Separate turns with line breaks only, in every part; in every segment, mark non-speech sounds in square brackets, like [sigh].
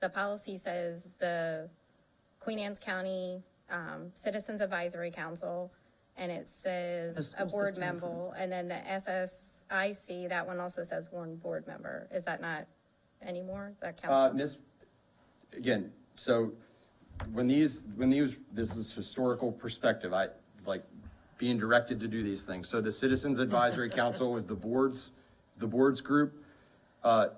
the policy says the Queen Anne's County, um, Citizens Advisory Council, and it
The
says a
school
board
system.
member, and then the SSIC, that one also says one board member. Is that not anymore, that
Uh,
council?
Miss, again, so when these, when these, this is historical perspective, I, like, being directed to do these things. So the Citizens Advisory Council was the board's, the board's group. Uh,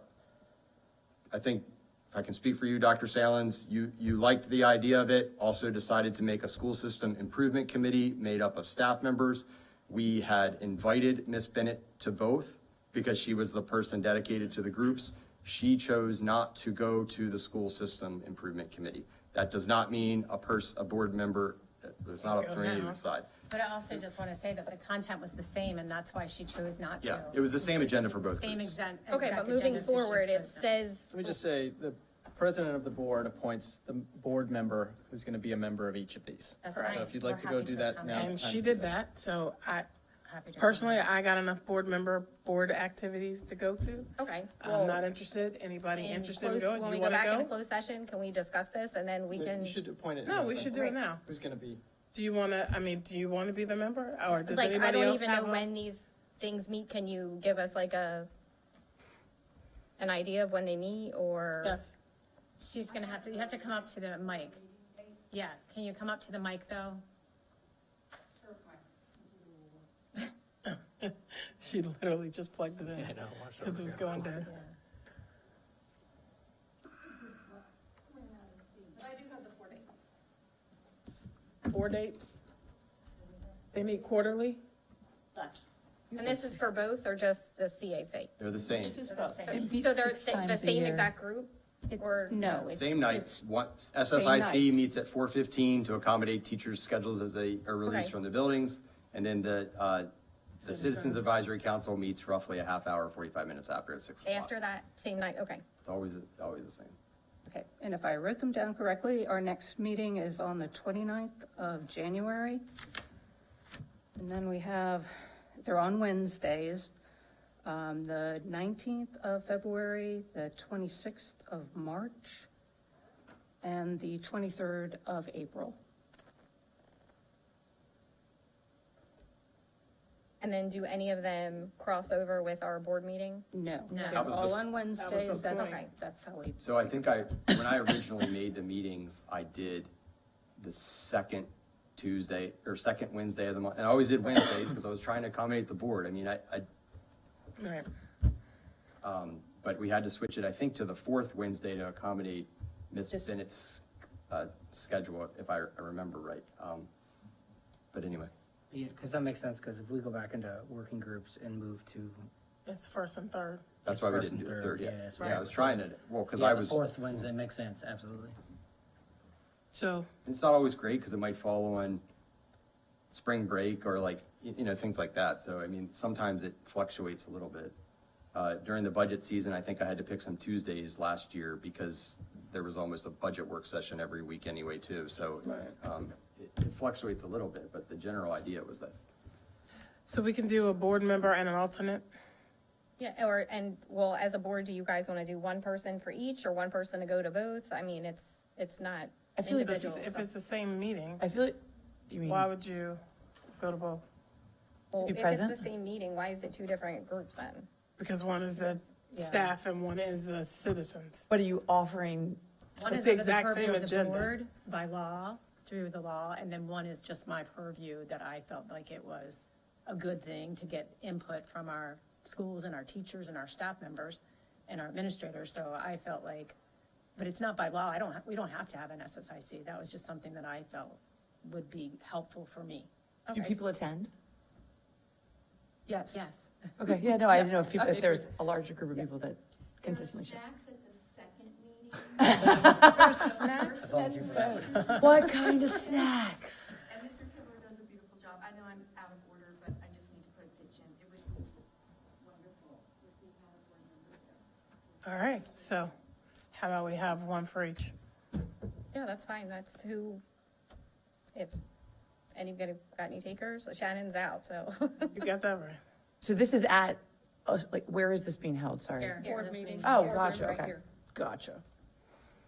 I think, if I can speak for you, Dr. Salins, you, you liked the idea of it, also decided to make a school system improvement committee made up of staff members. We had invited Ms. Bennett to both because she was the person dedicated to the groups. She chose not to go to the school system improvement committee. That does not mean a person, a board member, uh, there's not up to me to decide.
But I also just want to say that the content was the same, and that's why she chose not to.
Yeah, it was the same agenda for both
Same
groups.
exact.
Okay,
exact
but moving
agenda, so she
forward, it
chose not.
says,
Let me just say, the president of the board appoints the board member who's going to be a member of each of these.
That's
So
right.
if you'd like to
We're
go
happy
do
to
that now.
accommodate.
And she did that, so I,
Happy to-
personally, I got enough board member, board activities to go to.
okay. well,
I'm not interested. Anybody
in
interested in
close-
going?
When we
You
go
want
back in
to go?
closed session, can we discuss this and then we
You
can,
should appoint it.
No,
now,
we
then.
should do
Right.
it now.
Who's going to be?
Do you want to, I mean, do you want to be the member? Or does
like, I
anybody
don't
else
even know
have? a-
when these things meet. Can you give us like a, an idea of when they meet or?
Yes.
She's going to have to, you have to come up to the mic. Yeah, can you come up to the mic, though?
She literally just plugged it in. Because it was going down. Four dates? They meet quarterly?
And this is for both or just the CAC?
They're the same.
It'd be
So they're
six
the- the
times a
same
year.
exact group?
It-
Or,
No, it's.
Same night,
it's-
what,
Same
SSIC
night.
meets at four fifteen to accommodate teachers' schedules as they are
Okay.
released from the buildings. And then the, uh, the Citizens Advisory Council meets roughly a half hour, forty-five minutes after at six o'clock.
after that same night? Okay.
It's always, always the same.
Okay, and if I wrote them down correctly, our next meeting is on the 29th of January. And then we have, they're on Wednesdays, um, the 19th of February, the 26th of March, and the 23rd of April.
And then do any of them cross over with our board meeting?
No,
No.
they're
That was the-
all on Wednesdays, that's,
point.
that's how we,
So I think I, when I originally [laughs] made the meetings, I did the second Tuesday or second Wednesday of the month. And I always did Wednesdays because I was trying to accommodate the board. I mean, I, I,
Right.
but we had to switch it, I think, to the fourth Wednesday to accommodate Ms. Bennett's uh, schedule, if I I remember right. Um, But anyway,
Yeah, because that makes sense, because if we go back into working groups and move to.
It's first and third.
that's why we
First
didn't do
and
the
third,
third
yeah,
yet.
that's
Yeah, I
right.
was trying to, well, because
Yeah,
I
the
was,
Fourth Wednesday makes sense, absolutely.
So
it's not always great because it might fall on spring break or like, y- you know, things like that. So I mean, sometimes it fluctuates a little bit. Uh, During the budget season, I think I had to pick some Tuesdays last year because there was almost a budget work session every week anyway, too. So um, it it fluctuates a little bit, but the general idea was that
So we can do a board member and an alternate?
Yeah, or, and well, as a board, do you guys want to do one person for each or one person to go to both? I mean, it's, it's not
I feel like
This
individual.
is- If it's the same meeting,
I feel like, you mean,
why would you go to both?
Well,
be
if it's the
present?
same meeting, why is it two different groups then?
Because one is the staff and one is the citizens.
what are you offering?
One
It's
is
the
under
exact
purview
same
of the
agenda.
board By law, through the law, and then one is just my purview that I felt like it was a good thing to get input from our schools and our teachers and our staff members and our administrators, so I felt like, but it's not by law, I don't, ha- we don't have to have an SSIC, that was just something that I felt would be helpful for me.
Do
Okay.
people attend?
Yes. Yes.
Okay, yeah, no, I didn't know if people, if there's a larger group of people that consistently show. [laughs]
I volunteer for that.
[laughs] What kind of snacks?
And Mr. Kibler does a beautiful job. I know I'm out of order, but I just need to put a pitch in. It was wonderful.
All right, so how about we have one for each?
Yeah, that's fine. That's who, if anybody got any takers, Shannon's out, so. [laughs]
You got that right.
So this is at, uh, like, where is this being held? Sorry.
Here.
Oh,
Board
gotcha,
member right
okay.
here.
Gotcha.